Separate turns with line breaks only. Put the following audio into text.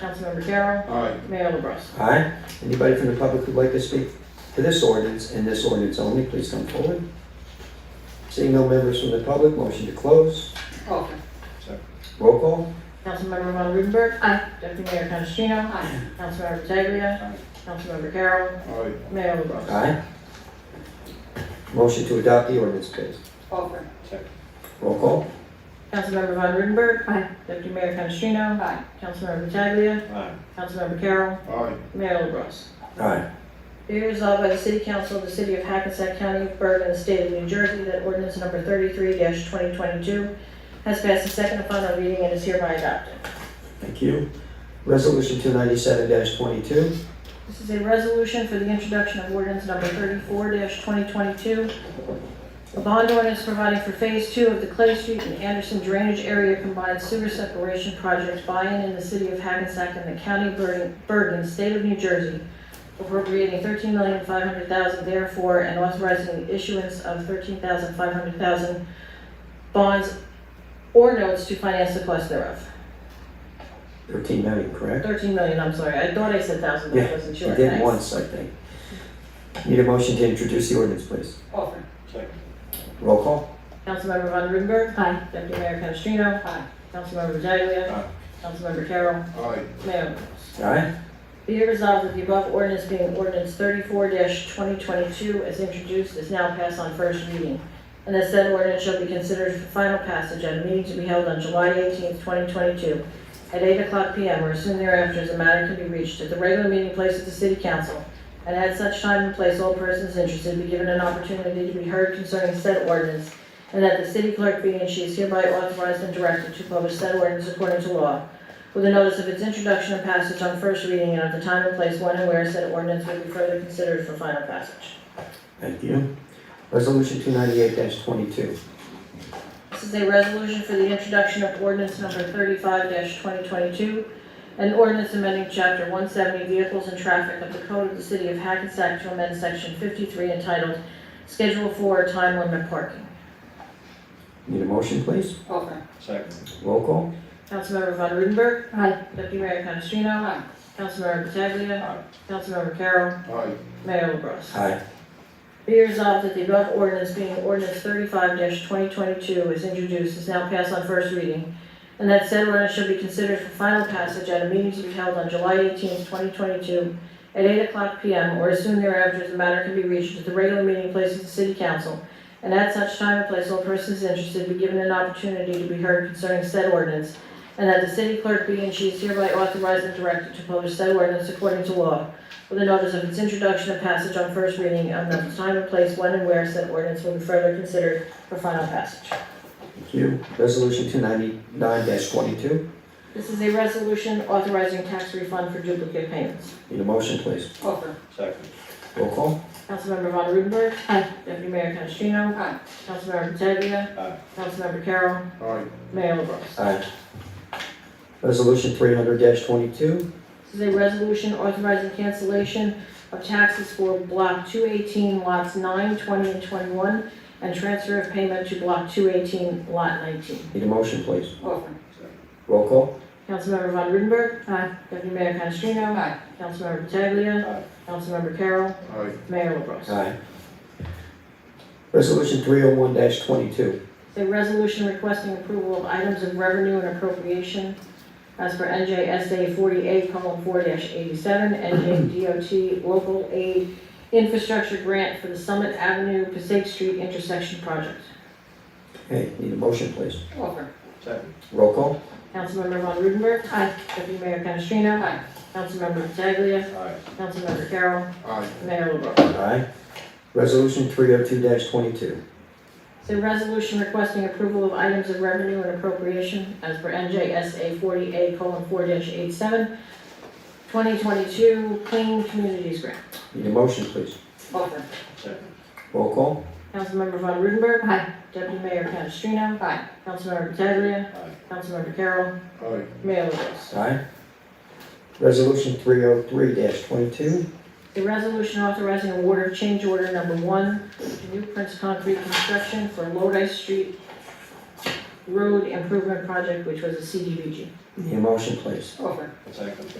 Councilmember Carroll.
Aye.
Mayor LaBrus.
Aye. Anybody from the public who'd like to speak to this ordinance and this ordinance only, please come forward. Seeing no members from the public, motion to close.
Over.
Roll call.
Councilmember Von Rudenberg.
Aye.
Deputy Mayor Canestrino.
Aye.
Councilmember Pataglia.
Aye.
Councilmember Carroll.
Aye.
Mayor LaBrus.
Aye. Motion to adopt the ordinance, please.
Over.
Roll call.
Councilmember Von Rudenberg.
Aye.
Deputy Mayor Canestrino.
Aye.
Councilmember Pataglia.
Aye.
Councilmember Carroll.
Aye.
Mayor LaBrus.
Aye.
Be resolved by the City Council of the City of Hackensack County, Bergen, and State of New Jersey that ordinance number thirty-three twenty twenty-two has passed its second and final reading and is hereby adopted.
Thank you. Resolution two ninety-seven twenty-two.
This is a resolution for the introduction of ordinance number thirty-four twenty twenty-two, a bond ordinance providing for phase two of the Clay Street and Anderson Drainage Area Combined Sewer Separation Project buy-in in the City of Hackensack and the County of Bergen, Bergen, State of New Jersey, appropriating thirteen million five hundred thousand therefore, and authorizing the issuance of thirteen thousand five hundred thousand bonds or notes to finance the cost thereof.
Thirteen million, correct?
Thirteen million, I'm sorry, I thought I said thousand, but I
Yeah,
wasn't sure.
I did
Thanks.
once, I think. Need a motion to introduce the ordinance, please.
Over.
Roll call.
Councilmember Von Rudenberg.
Aye.
Deputy Mayor Canestrino.
Aye.
Councilmember Pataglia.
Aye.
Councilmember Carroll.
Aye.
Mayor.
Aye.
Be it resolved that the above ordinance being ordinance thirty-four twenty twenty-two as introduced is now passed on first reading. And that said ordinance shall be considered for final passage at a meeting to be held on July eighteenth, twenty twenty-two at eight o'clock PM or soon thereafter as the matter can be reached at the regular meeting place of the city council. And at such time and place, all persons interested be given an opportunity to be heard concerning said ordinance. And that the city clerk be and she is hereby authorized and directed to publish said ordinance according to law with a notice of its introduction and passage on first reading and of the time and place when and where said ordinance will be further considered for final passage.
Thank you. Resolution two ninety-eight twenty-two.
This is a resolution for the introduction of ordinance number thirty-five twenty twenty-two, an ordinance amending chapter one seventy vehicles and traffic of the code of the city of Hackensack to amend section fifty-three entitled Schedule Four Time Limit Parking.
Need a motion, please.
Over.
Second.
Roll call.
Councilmember Von Rudenberg.
Aye.
Deputy Mayor Canestrino.
Aye.
Councilmember Pataglia.
Aye.
Councilmember Carroll.
Aye.
Mayor LaBrus.
Aye.
Be resolved that the above ordinance being ordinance thirty-five twenty twenty-two is introduced is now passed on first reading, and that said ordinance shall be considered for final passage at a meeting to be held on July eighteenth, twenty twenty-two, at eight o'clock PM or as soon thereafter as the matter can be reached at the regular meeting place of the city council, and at such time and place all persons interested be given an opportunity to be heard concerning said ordinance, and that the city clerk be and she is hereby authorized and directed to publish said ordinance according to law, with a notice of its introduction and passage on first reading and of the time and place when and where said ordinance will be further considered for final passage.
Thank you. Resolution two ninety-nine twenty-two.
This is a resolution authorizing tax refund for duplicate payments.
Need a motion, please.
Over.
Second.
Roll call.
Councilmember Von Rudenberg.
Aye.
Deputy Mayor Canestrino.
Aye.
Councilmember Pataglia.
Aye.
Councilmember Carroll.
Aye.
Mayor LaBrus.
Aye. Resolution three hundred twenty-two.
This is a resolution authorizing cancellation of taxes for Block 218, lots 9, 20, and 21, and transfer of payment to Block 218, lot 19.
Need a motion, please.
Over.
Roll call.
Councilmember Von Rudenberg.
Aye.
Deputy Mayor Canestrino.
Aye.
Councilmember Pataglia.
Aye.
Councilmember Carroll.
Aye.
Mayor LaBrus.
Aye. Resolution three oh one twenty-two.
It's a resolution requesting approval of items of revenue and appropriation as per NJSA 48, column 4-87, NJ DOT Local Aid Infrastructure Grant for the Summit Avenue Passaic Street Intersection Project.
Okay, need a motion, please.
Over.
Second.
Roll call.
Councilmember Von Rudenberg. Aye. Deputy Mayor Canestrino.
Aye.
Councilmember Pataglia.
Aye.
Councilmember Carroll.
Aye.
Mayor LaBrus.
Aye. Resolution three oh two twenty-two.
It's a resolution requesting approval of items of revenue and appropriation as per NJSA 40A: 48:4-87, 2022 Clean Communities Grant.
Need a motion, please.
Over.
Second.
Roll call.
Councilmember Von Rudenberg.
Aye.
Deputy Mayor Canestrino.
Aye.
Councilmember Pataglia.
Aye.
Councilmember Carroll.
Aye.
Mayor LaBrus.
Aye. Resolution three oh three twenty-two.
A resolution authorizing award of change order number one to New Prince Concrete Construction for Lodi Street Road Improvement Project, which was a CDBG.
Need a motion, please?
Over.
Second.